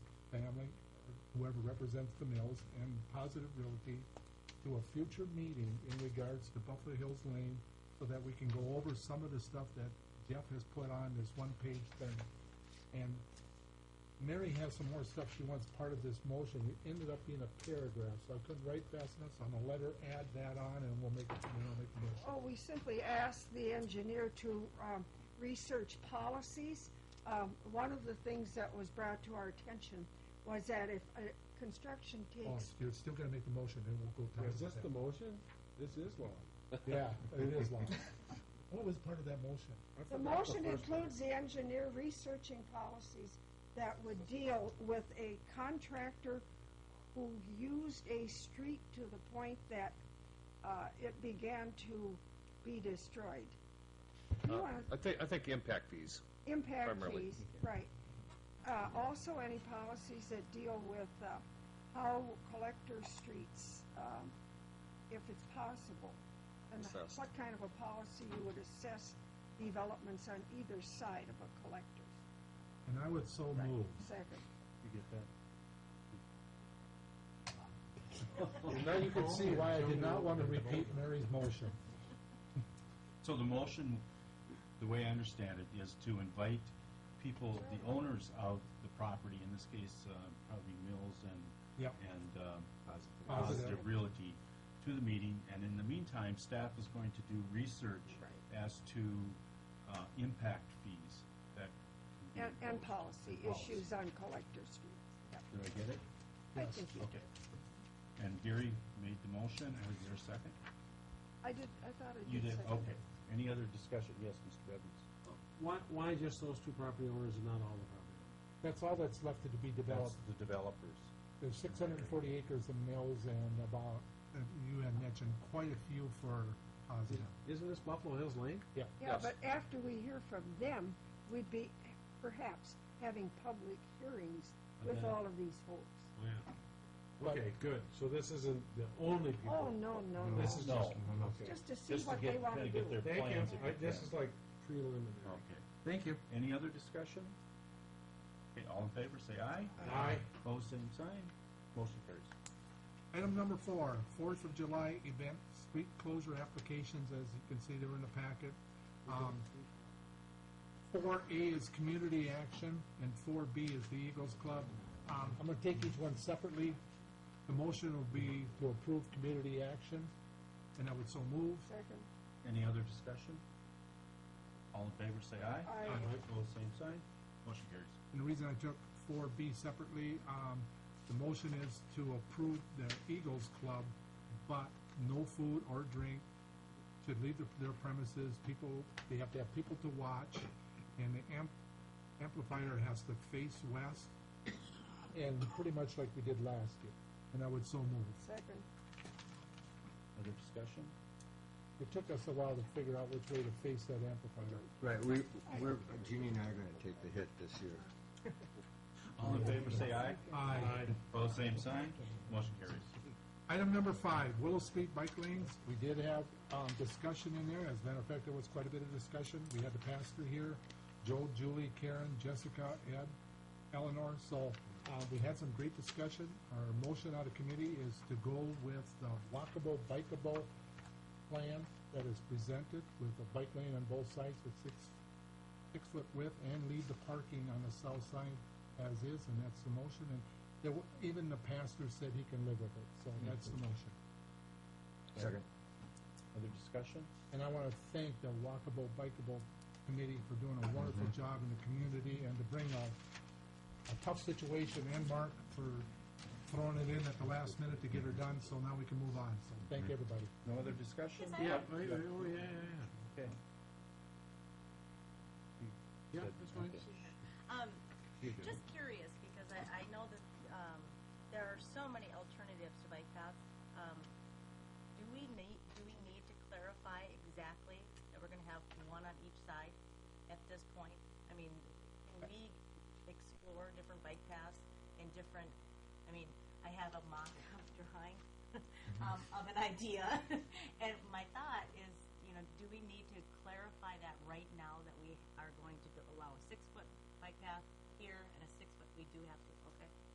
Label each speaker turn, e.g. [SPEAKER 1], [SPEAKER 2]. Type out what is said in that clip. [SPEAKER 1] whoever represents the mills and Positive Realty to a future meeting in regards to Buffalo Hills Lane so that we can go over some of the stuff that Jeff has put on this one-page thing. And Mary has some more stuff she wants part of this motion. It ended up being a paragraph, so I couldn't write fast enough, so I'm gonna let her add that on and we'll make, it- then I'll make the motion.
[SPEAKER 2] Oh, we simply asked the engineer to um, research policies. Um, One of the things that was brought to our attention was that if uh, construction
[SPEAKER 1] Oh,
[SPEAKER 2] takes,
[SPEAKER 1] you're still gonna make the motion, then we'll go time.
[SPEAKER 3] Is this the motion? This is long.
[SPEAKER 1] Yeah, it is long. What was part of that motion?
[SPEAKER 3] I
[SPEAKER 2] the
[SPEAKER 3] forgot
[SPEAKER 2] motion
[SPEAKER 3] first one.
[SPEAKER 2] includes the engineer researching policies that would deal with a contractor who used a street to the point that uh, it began to be destroyed. You
[SPEAKER 4] Uh,
[SPEAKER 2] wanna-
[SPEAKER 4] I think, I think impact fees.
[SPEAKER 2] impact
[SPEAKER 4] Primarily.
[SPEAKER 2] fees, right. Uh, also any policies that deal with, uh, how collector streets, um, if it's possible. And
[SPEAKER 4] Assessed.
[SPEAKER 2] what kind of a policy you would assess developments on either side of a collector.
[SPEAKER 1] And I would so
[SPEAKER 2] Right.
[SPEAKER 1] move.
[SPEAKER 2] Second.
[SPEAKER 3] You get that?
[SPEAKER 1] Now you can see why I did not want to repeat Mary's motion.
[SPEAKER 5] So the motion, the way I understand it, is to invite people, the owners of the property, in this case, uh, probably Mills and,
[SPEAKER 1] Yep.
[SPEAKER 5] and um,
[SPEAKER 1] Positive.
[SPEAKER 5] Positive Realty, to the meeting, and in the meantime, staff is going to do research as to uh, impact fees that can be
[SPEAKER 2] And, and
[SPEAKER 5] imposed.
[SPEAKER 2] policy
[SPEAKER 5] And policy.
[SPEAKER 2] issues on collector streets. Yep,
[SPEAKER 5] Did I get it?
[SPEAKER 2] I
[SPEAKER 1] Yes.
[SPEAKER 2] think you,
[SPEAKER 5] Okay. And Gary made the motion, was there a second?
[SPEAKER 2] I did, I thought I did.
[SPEAKER 5] You did,
[SPEAKER 2] second.
[SPEAKER 5] okay. Any other discussion? Yes, Mr. Bevins?
[SPEAKER 3] Why, why just those two property owners and not all the property?
[SPEAKER 1] That's all that's left to be
[SPEAKER 5] That's
[SPEAKER 1] developed.
[SPEAKER 5] the developers.
[SPEAKER 1] There's six hundred and forty acres of mills and about, uh, you had mentioned quite a few for uh, positive.
[SPEAKER 3] Isn't this Buffalo Hills Lane?
[SPEAKER 1] Yeah.
[SPEAKER 2] Yeah,
[SPEAKER 4] Yes.
[SPEAKER 2] but after we hear from them, we'd be perhaps having public hearings with
[SPEAKER 5] Okay.
[SPEAKER 2] all of these folks.
[SPEAKER 1] But-
[SPEAKER 3] Okay, good. So this isn't the only
[SPEAKER 2] Oh,
[SPEAKER 3] people.
[SPEAKER 2] no, no,
[SPEAKER 3] No,
[SPEAKER 2] no.
[SPEAKER 3] This is
[SPEAKER 5] No.
[SPEAKER 3] just, okay.
[SPEAKER 2] Just to see
[SPEAKER 5] Just to
[SPEAKER 2] what they
[SPEAKER 5] get,
[SPEAKER 2] want
[SPEAKER 5] kinda
[SPEAKER 2] to do.
[SPEAKER 5] get their
[SPEAKER 3] Thank you.
[SPEAKER 5] plans. if
[SPEAKER 3] I-
[SPEAKER 5] you
[SPEAKER 3] This
[SPEAKER 5] can.
[SPEAKER 3] is like preliminary.
[SPEAKER 5] Okay.
[SPEAKER 4] Thank you.
[SPEAKER 5] Any other discussion? Okay, all in favor, say aye.
[SPEAKER 3] Aye.
[SPEAKER 5] Opposed, same sign. Motion carries.
[SPEAKER 1] Item number four, Fourth of July event, street closure applications, as you can see, they're in the packet. Um, four A is community action, and four B is the Eagles Club. Um, I'm gonna take each one separately. The motion will be to approve community action, and I would so move.
[SPEAKER 2] Second,
[SPEAKER 5] Any other discussion? All in favor, say aye.
[SPEAKER 2] Aye.
[SPEAKER 5] Aye. Opposed, same sign. Motion carries.
[SPEAKER 1] And the reason I took four B separately, um, the motion is to approve the Eagles Club, but no food or drink should leave their- their premises, people, they have to have people to watch, and the amp, amplifier has to face west, and pretty much like we did last year, and I would so move.
[SPEAKER 2] second,
[SPEAKER 5] Other discussion?
[SPEAKER 1] It took us a while to figure out which way to face that amplifier.
[SPEAKER 6] Right, we, we're, Jeannie and I are gonna take the hit this year.
[SPEAKER 5] All in favor, say aye.
[SPEAKER 1] Aye.
[SPEAKER 5] Opposed, same sign. Motion carries.
[SPEAKER 1] Item number five, Willow Street Bike Lanes. We did have, um, discussion in there. As a matter of fact, there was quite a bit of discussion. We had the pastor here, Joel, Julie, Karen, Jessica, Ed, Eleanor. So, uh, we had some great discussion. Our motion out of committee is to go with the walkable, bikeable plan that is presented with a bike lane on both sides with six, six foot width and leave the parking on the south side as is, and that's the motion. And there, wa- even the pastor said he can live with it, so that's the motion.
[SPEAKER 6] Second.
[SPEAKER 5] Other discussion?
[SPEAKER 1] And I want to thank the Walkable Bikeable Committee for doing a wonderful job in the community and to bring a, a tough situation and Mark for throwing it in at the last minute to get her done, so now we can move on. So thank everybody.
[SPEAKER 5] No other discussion?
[SPEAKER 3] Yeah, oh, yeah, oh, yeah, yeah.
[SPEAKER 5] Okay.
[SPEAKER 3] Yeah, that's fine.
[SPEAKER 7] Um,
[SPEAKER 5] You do.
[SPEAKER 7] just curious, because I, I know that, um, there are so many alternatives to bike paths. Um, do we need, do we need to clarify exactly that we're gonna have one on each side at this point? I mean, can we explore different bike paths and different, I mean, I have a mock-up drawing um, of an idea, and my thought is, you know, do we need to clarify that right now that we are going to go- allow a six-foot bike path here and a six-foot, we do have to